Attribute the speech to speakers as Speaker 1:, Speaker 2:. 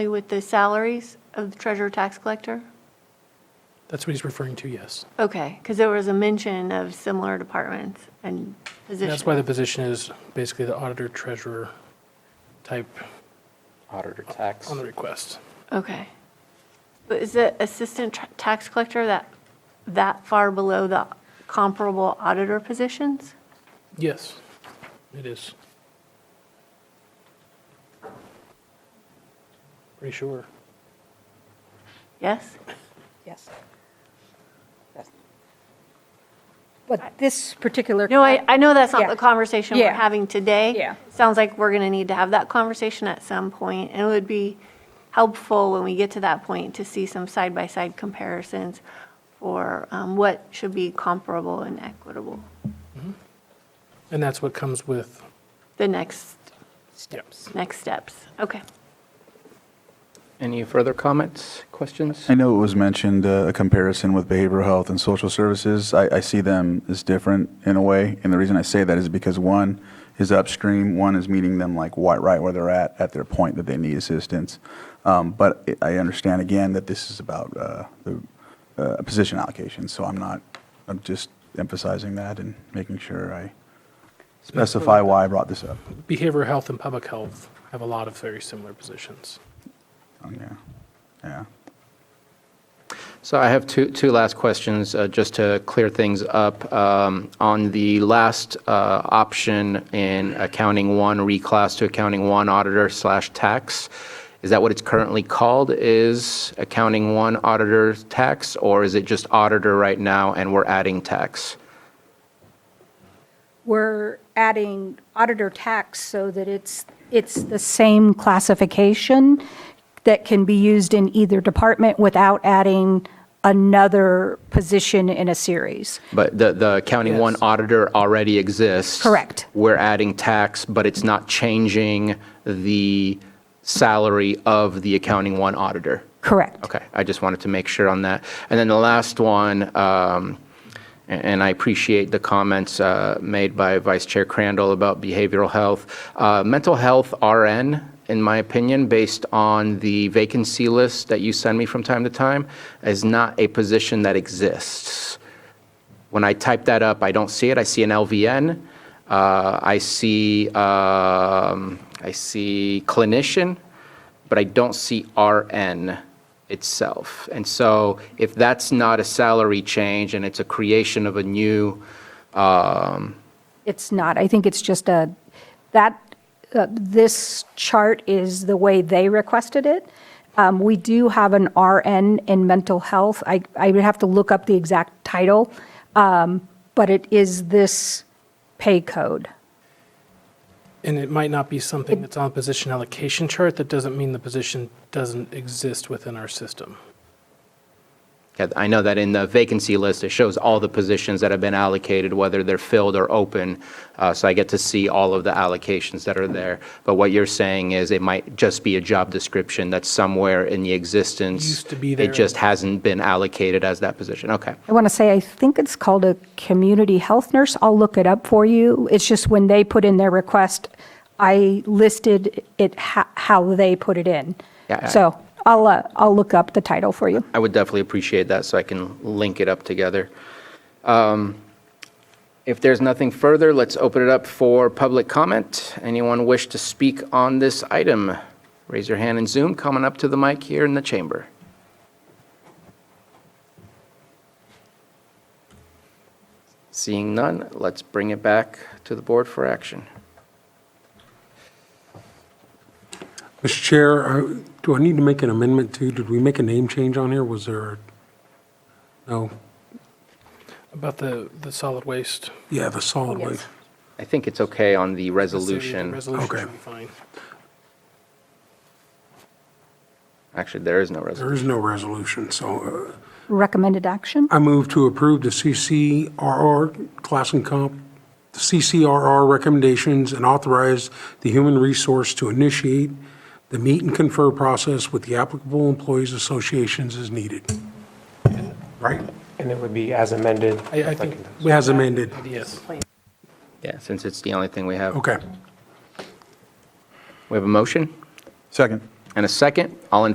Speaker 1: With the salaries of the treasurer tax collector?
Speaker 2: That's what he's referring to, yes.
Speaker 1: Okay, because there was a mention of similar departments and
Speaker 2: And
Speaker 1: positions.
Speaker 2: that's why the position is basically the auditor treasurer type
Speaker 3: Auditor tax.
Speaker 2: on the request.
Speaker 1: Okay. But is the assistant tr- tax collector that, that far below the comparable auditor positions?
Speaker 2: Yes, it is. Pretty sure.
Speaker 1: Yes?
Speaker 4: Yes. Yes. But this particular.
Speaker 1: No, I, I know that's not
Speaker 4: Yeah.
Speaker 1: the conversation we're
Speaker 4: Yeah.
Speaker 1: having today.
Speaker 4: Yeah.
Speaker 1: Sounds like we're going to need to have that conversation at some point, and it would be helpful when we get to that point to see some side-by-side comparisons for um, what should be comparable and equitable,
Speaker 2: And that's what comes with,
Speaker 1: the next,
Speaker 4: Steps.
Speaker 1: next steps. Okay.
Speaker 3: Any further comments, questions?
Speaker 5: I know it was mentioned, uh, a comparison with behavioral health and social services. I, I see them as different in a way, and the reason I say that is because one is upstream, one is meeting them like wi- right where they're at, at their point that they need assistance. Um, But I- I understand again that this is about uh, the uh, position allocation, so I'm not, I'm just emphasizing that and making sure I specify why I brought this up.
Speaker 2: behavioral health and public health have a lot of very similar positions.
Speaker 5: Um, Yeah, yeah.
Speaker 3: So I have two, two last questions, uh, just to clear things up. Um, On the last uh, option in accounting one, reclass to accounting one auditor slash tax, is that what it's currently called, is accounting one auditor tax? Or is it just auditor right now and we're adding tax?
Speaker 4: We're adding auditor tax so that it's, it's the same classification that can be used in either department without adding another position in a series.
Speaker 3: But the, the accounting one
Speaker 2: Yes.
Speaker 3: auditor already exists.
Speaker 4: Correct.
Speaker 3: We're adding tax, but it's not changing the salary of the accounting one auditor.
Speaker 4: Correct.
Speaker 3: Okay, I just wanted to make sure on that. And then the last one, um, a- and I appreciate the comments uh, made by Vice Chair Crandall about behavioral health. Uh, Mental health RN, in my opinion, based on the vacancy list that you send me from time to time, is not a position that exists. When I type that up, I don't see it. I see an LVN. Uh, I see, um, I see clinician, but I don't see RN itself. And so if that's not a salary change and it's a creation of a new, um,
Speaker 4: It's not. I think it's just a, that, uh, this chart is the way they requested it. Um, We do have an RN in mental health. I, I would have to look up the exact title, um, but it is this pay code.
Speaker 2: And it might not be something that's on the position allocation chart. That doesn't mean the position doesn't exist within our system.
Speaker 3: okay, I know that in the vacancy list, it shows all the positions that have been allocated, whether they're filled or open. Uh, So I get to see all of the allocations that are there. But what you're saying is it might just be a job description that's somewhere in the existence.
Speaker 2: Used to be there.
Speaker 3: It just hasn't been allocated as that position. Okay.
Speaker 4: I want to say, I think it's called a community health nurse. I'll look it up for you. It's just when they put in their request, I listed it ho- how they put it in.
Speaker 3: Yeah, I-
Speaker 4: So I'll, uh, I'll look up the title for you.
Speaker 3: I would definitely appreciate that, so I can link it up together. Um, If there's nothing further, let's open it up for public comment. Anyone wish to speak on this item? Raise your hand and Zoom, coming up to the mic here in the chamber. Seeing none, let's bring it back to the board for action.
Speaker 6: Mr. Chair, uh, do I need to make an amendment too? Did we make a name change on here? Was there, a- no?
Speaker 2: About the, the solid waste.
Speaker 6: Yeah, the solid waste.
Speaker 3: I think it's okay on
Speaker 2: Let's say the
Speaker 3: the resolution.
Speaker 2: Resolution
Speaker 6: Okay.
Speaker 2: should be fine.
Speaker 3: Actually, there is no
Speaker 6: There
Speaker 3: resolution.
Speaker 6: is no resolution, so
Speaker 4: Recommended action?
Speaker 6: uh, I move to approve the CCRR class and comp, the CCRR recommendations and authorize the human resource to initiate the meet and confer process with the applicable employees associations as needed. Right?
Speaker 7: And it would be as amended.
Speaker 2: I, I think,
Speaker 6: As amended.
Speaker 2: yes. Er-
Speaker 3: Yeah, since it's the only thing we have.
Speaker 6: Okay.
Speaker 3: We have a motion?
Speaker 5: Second.
Speaker 3: and a second. All in